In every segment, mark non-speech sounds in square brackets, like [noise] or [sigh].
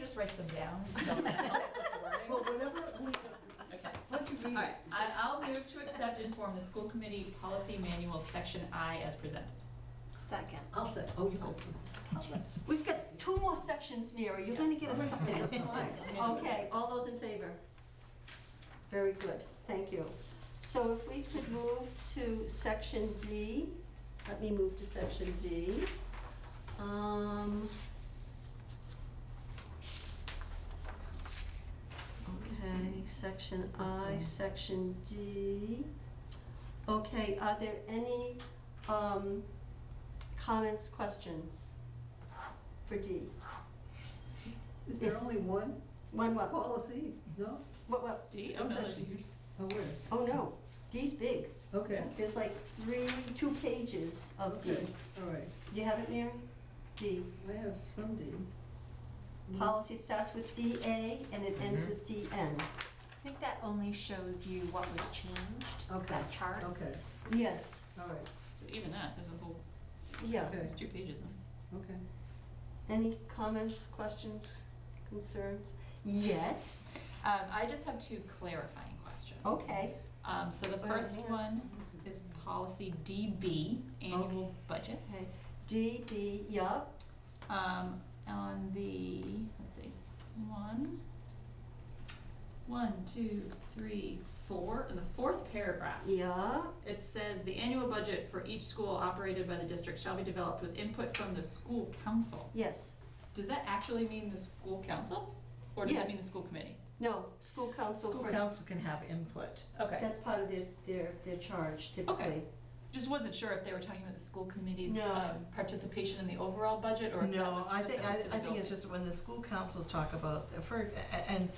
just write them [laughs] down. oh, Someone else is learning. Well, whenever we, let you All read right, it. I, I'll move to accept and form the school committee policy manual, section I, as presented. Second. I'll say, oh, you go. We've got two more sections, Mary, you're gonna get a That's second. fine. [laughs] Okay, all those in favor? Very good, thank you. So if we could move to section D, let me move to section D. Um, Okay, section I, section D. Okay, are there any um, comments, questions for D? Is there Yes. only one One, what, what, policy? No? what? D, oh no, there's a huge, Oh, where? Oh, no, D's big. Okay. There's like three, two pages of D. Okay, all right. Do you have it, Mary? D. Mm-hmm. I have some D. Policy starts with DA and it ends with DN. I think that only shows you what was changed, Mm-hmm. Okay. that chart. Okay, Yes, all right, even that, there's a whole, yeah. okay, there's two pages on it. okay. Any comments, questions, concerns? Yes, Um, I just have two clarifying questions. okay. Um, so the Well, first yeah. one is policy DB, annual budgets. Okay. DB, yup, Um, on the, let's see, one, one, two, three, four, in the fourth paragraph, yup, it says, "The annual budget for each school operated by the district shall be developed with input from the school council." yes. Does that actually mean the school council? Or does that mean the Yes. school committee? No, school council School for, council can have input. Okay, that's part of their, their, their charge typically. just wasn't sure if they were talking about the school committee's No. um, participation in the overall budget, or if that No, was I think, I specific to the I think it's just when the school councils talk about, the fir- and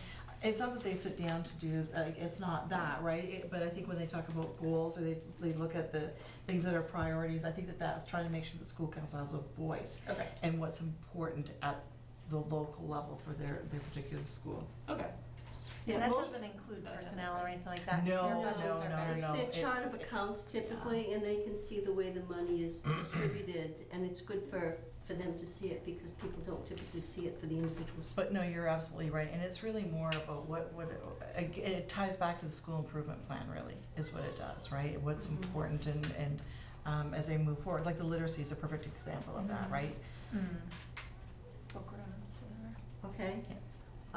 it's not that they sit down to do, like, it's not that, right? It- But I think when they talk about goals, or they, they look at the things that are priorities, I think that that's trying to make sure the school council has a voice building. Okay, and what's important at the local level for their, their particular school. okay. Yeah, And that most- doesn't include personnel or anything like that. No, Their budgets no, are no, very- no. It's it- their chart of accounts typically, and they can see the way the money is Mm-hmm. distributed, and it's good for, for them to see it, because people don't typically see it for the individual schools. But no, you're absolutely right, and it's really more about what, what, ag- it ties back to the school improvement plan, really, is what it does, right? What's Mm-hmm. important and, and um, as they move forward, like the literacy is a perfect example of Mm-hmm. that, right? Mm. Okay? Yeah.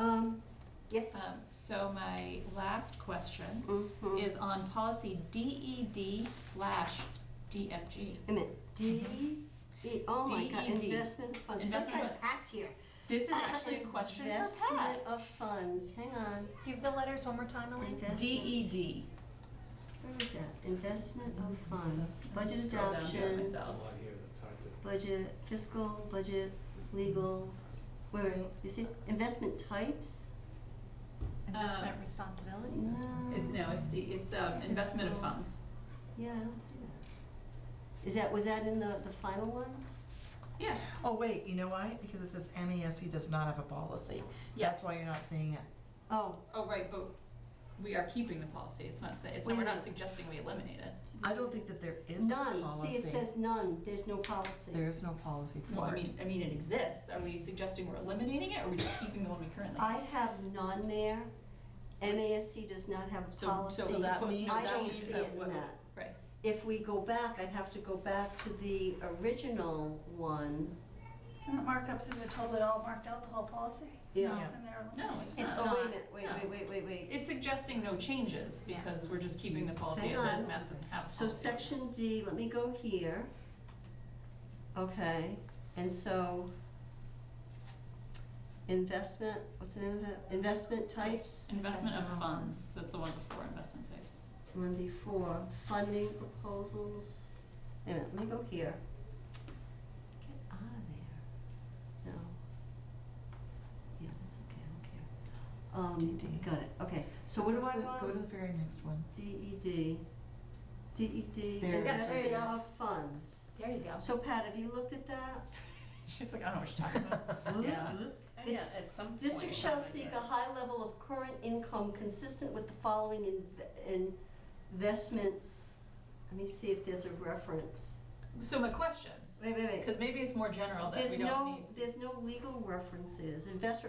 Um, yes? Um, So my last question Mhm. is on policy DED slash DFG. Wait a minute, D, E, oh my God, DED. investment funds, that's Investment got funds. Pat's here. This is actually a question for Investment Pat. of funds, hang on, Give the letters one more time, Elaine. Investment. DED. where is that? Investment of Oh, funds, budget Scroll down to it adoption, A myself. lot here that's hard to. budget, fiscal, budget, legal, where, you see, investment types? Um, Investment responsibility. No. It- No, it's, D- it's um, investment of funds. Yeah, I don't see that. Is that, was that in the, the final ones? Yeah, Oh, wait, you know why? Because it says MESC does not have a policy. That's why you're not seeing it. Oh, oh, right, but we are keeping the policy. It's not, say- it's not, we're not suggesting we eliminate it. I don't think that there is a none, policy. see, it says none, there's no policy. There is no policy Well, I for it. mean, I mean, it exists. Are we suggesting we're eliminating it, or are we just keeping the one we currently? I have none there, MASC does not have a So- policy. so that means- I that don't means see that it what- in that. Right. If we go back, I'd have to go back to the original one. And the markups, is it totally all marked out, the whole policy? Yeah. And there are- No, it's It's not. Oh, wait a not. minute, wait, No. wait, wait, wait, wait. It's suggesting no changes because we're just keeping the policy Hang as is. on. Mass doesn't have a So policy. section D, let me go here. Okay, and so investment, what's the name of that? Investment types? Investment of funds, that's the one before investment types. One before, funding proposals. Wait a minute, let me go here. Get out of there. No. Yeah, that's okay, I don't care. Um, DD. got it, okay. So what do I want? E E Go to the very next one. [laughs] DED. DED, There it is. E investment of funds. There you go. So Pat, have you looked at that? She's like, I don't know what you're talking about. [laughs] Yeah. District shall seek a high level of current income consistent with the following in- investments. Let me see if there's a reference. So my question, Wait, wait, wait. because maybe it's more general that There's we don't need. no, there's no legal references. Investment